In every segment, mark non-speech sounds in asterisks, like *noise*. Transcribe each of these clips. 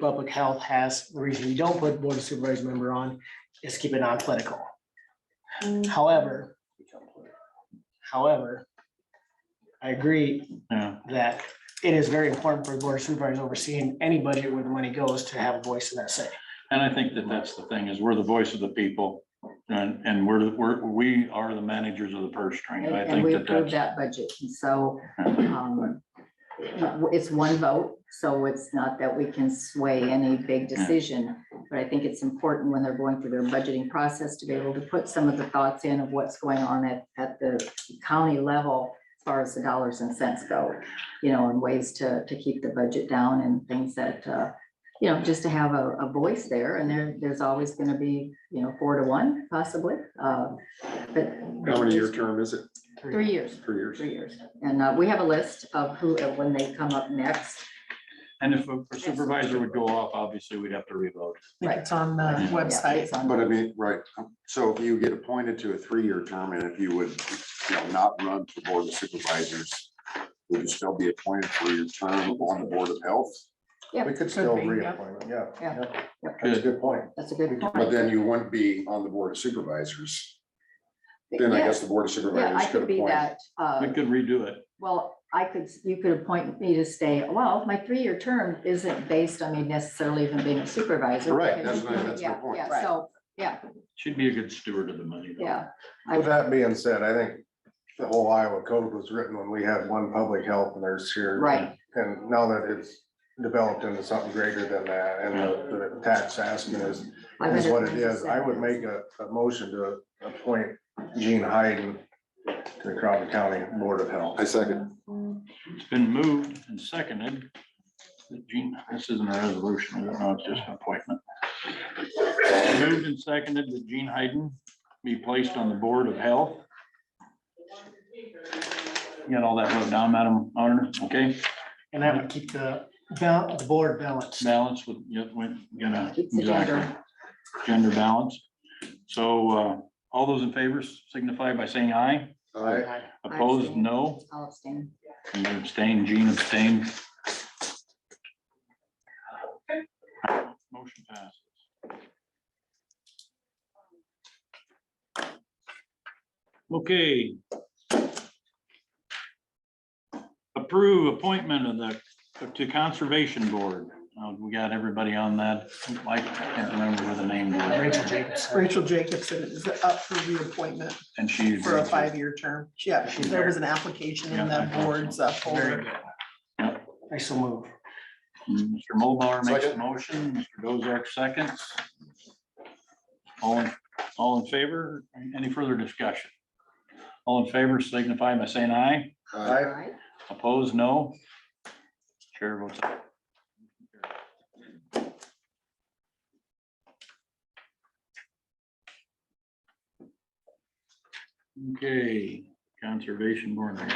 public health has, the reason we don't put board of supervisors member on is keep it non-political. However, however, I agree Yeah, that it is very important for the board of supervisors overseeing any budget where the money goes to have a voice in that say. and I think that that's the thing, is we're the voice of the people, and, and we're, the- we're, we are the managers of the purse string, and And I and think we that approved that's. that budget, and so, um, it's one vote, so it's not that we can sway any big decision. But I think it's important when they're going through their budgeting process to be able to put some of the thoughts in of what's going on at, at the county level as far as the dollars and cents go, you know, and ways to, to keep the budget down and things that, uh, you know, just to have a, a voice there, and there, there's always gonna be, you know, four to one possibly, uh, but. How many year term is it? Three years Three years. three years. And uh, we have a list of who, and when they come up next. And if a supervisor would go off, obviously, we'd have to revote. think it's on the Yeah. Yeah, Uh, website. it's on- But I mean, right, um, so if you get appointed to a three-year term and if you would, you know, not run for board of supervisors, would you still be appointed for your term on the board of health? Yeah, We could be, yeah. yeah. Yeah. yeah. That's a good point. That's a good point. But then you wouldn't be on the board of supervisors. Then I Yeah, guess the board of Yeah, I supervisors could could be appoint. that, uh, We could redo it. well, I could, you could appoint me to stay, well, my three-year term isn't based on me necessarily even being a supervisor. Right, because- that's my- that's my Yeah, point. Yeah, so, yeah, She'd be a good steward of the money. though. yeah, With that being said, I think the whole Iowa code was written when we had one public health nurse here. right, And now that it's developed into something greater than that and the the tax asking is, is what it is, I would make a, a motion to appoint Gene Hayden to the Crawford County Board of Health. I second. It's been moved and seconded. that Gene, this isn't a resolution, I don't know, it's just an appointment. Moved and seconded that Gene Hayden be placed on the Board of Health. You Got all that wrote down, Madam Auditor, okay? And that would keep the, bal- the board balanced. Balance with, you know, you know, Keeps the exactly, gender. gender balance. So uh, all those in favor signify by saying aye. All right. Opposed, abstain. no. I'll abstain. And you abstain, Gene abstained. Motion passes. Okay. Approve appointment of the, to Conservation Board. Uh, We got everybody on that. I can't remember what the name was. Rachel Jacobson. Rachel Jacobson is up for reappointment And she. for a five-year term. Yeah, there was an application in the board's uh, Very folder. good. Yeah. I so move. Mr. Mulbauer makes a Second. motion, Mr. Dozark seconds. All, in all in favor? Any further discussion? All in favor signify by saying aye. Aye. All right. Opposed, no. Chair votes aye. Okay, Conservation Board. there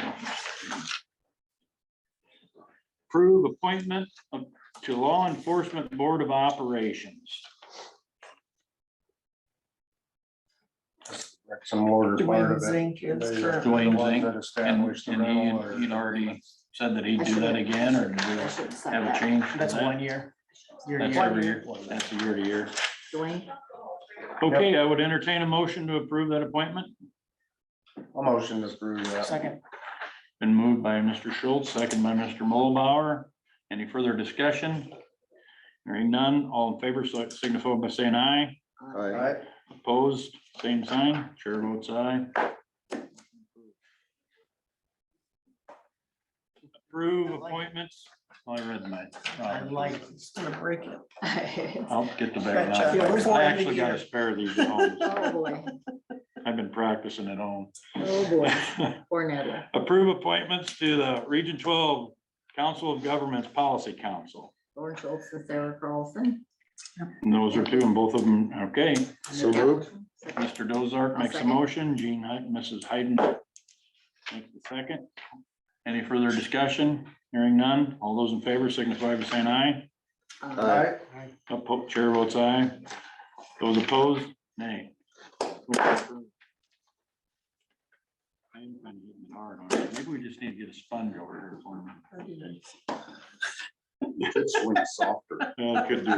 you go. Approve appointment of- to Law Enforcement Board of Operations. That's Some order part Dwayne of it. Zink is current. Dwayne One Zink that And established the and he, rental had- or- he'd already said that he'd do that again, or do we I should sign have a that. change? to That's that? one year. Year to That's year. every year, that's a year to year. *laughs* Dwayne, Okay, I would entertain a motion to approve that appointment. A motion to approve that. Second, Been moved by Mr. Schultz, second by Mr. Mulbauer. Any further discussion? Hearing none, all in favor, so signify by saying aye. All right. Aye. Opposed, same sign. Chair votes aye. Approve appointments. Oh, I read my. I like, It's gonna break it. I'll get the bag Gotcha. now. Before I end of actually got year. a spare of these at home. Oh, boy, I've been practicing at home. oh, boy, *laughs* poor Natalie. Approve appointments to the Region twelve Council of Governments Policy Council. Lauren Schultz and Sarah Carlson. And those are two, and both of them, okay. So moved. Mr. Dozark I'll makes a second. motion, Jean, Hy- Mrs. Hayden makes the second. Any further discussion? Hearing none. All those in favor signify by saying aye. Uh, Aye. Oppo- Chair votes aye. Those opposed, nay. I'm kind of hitting it hard on it. Maybe we just need to get a sponge over here for him. It's way softer. Well, it could do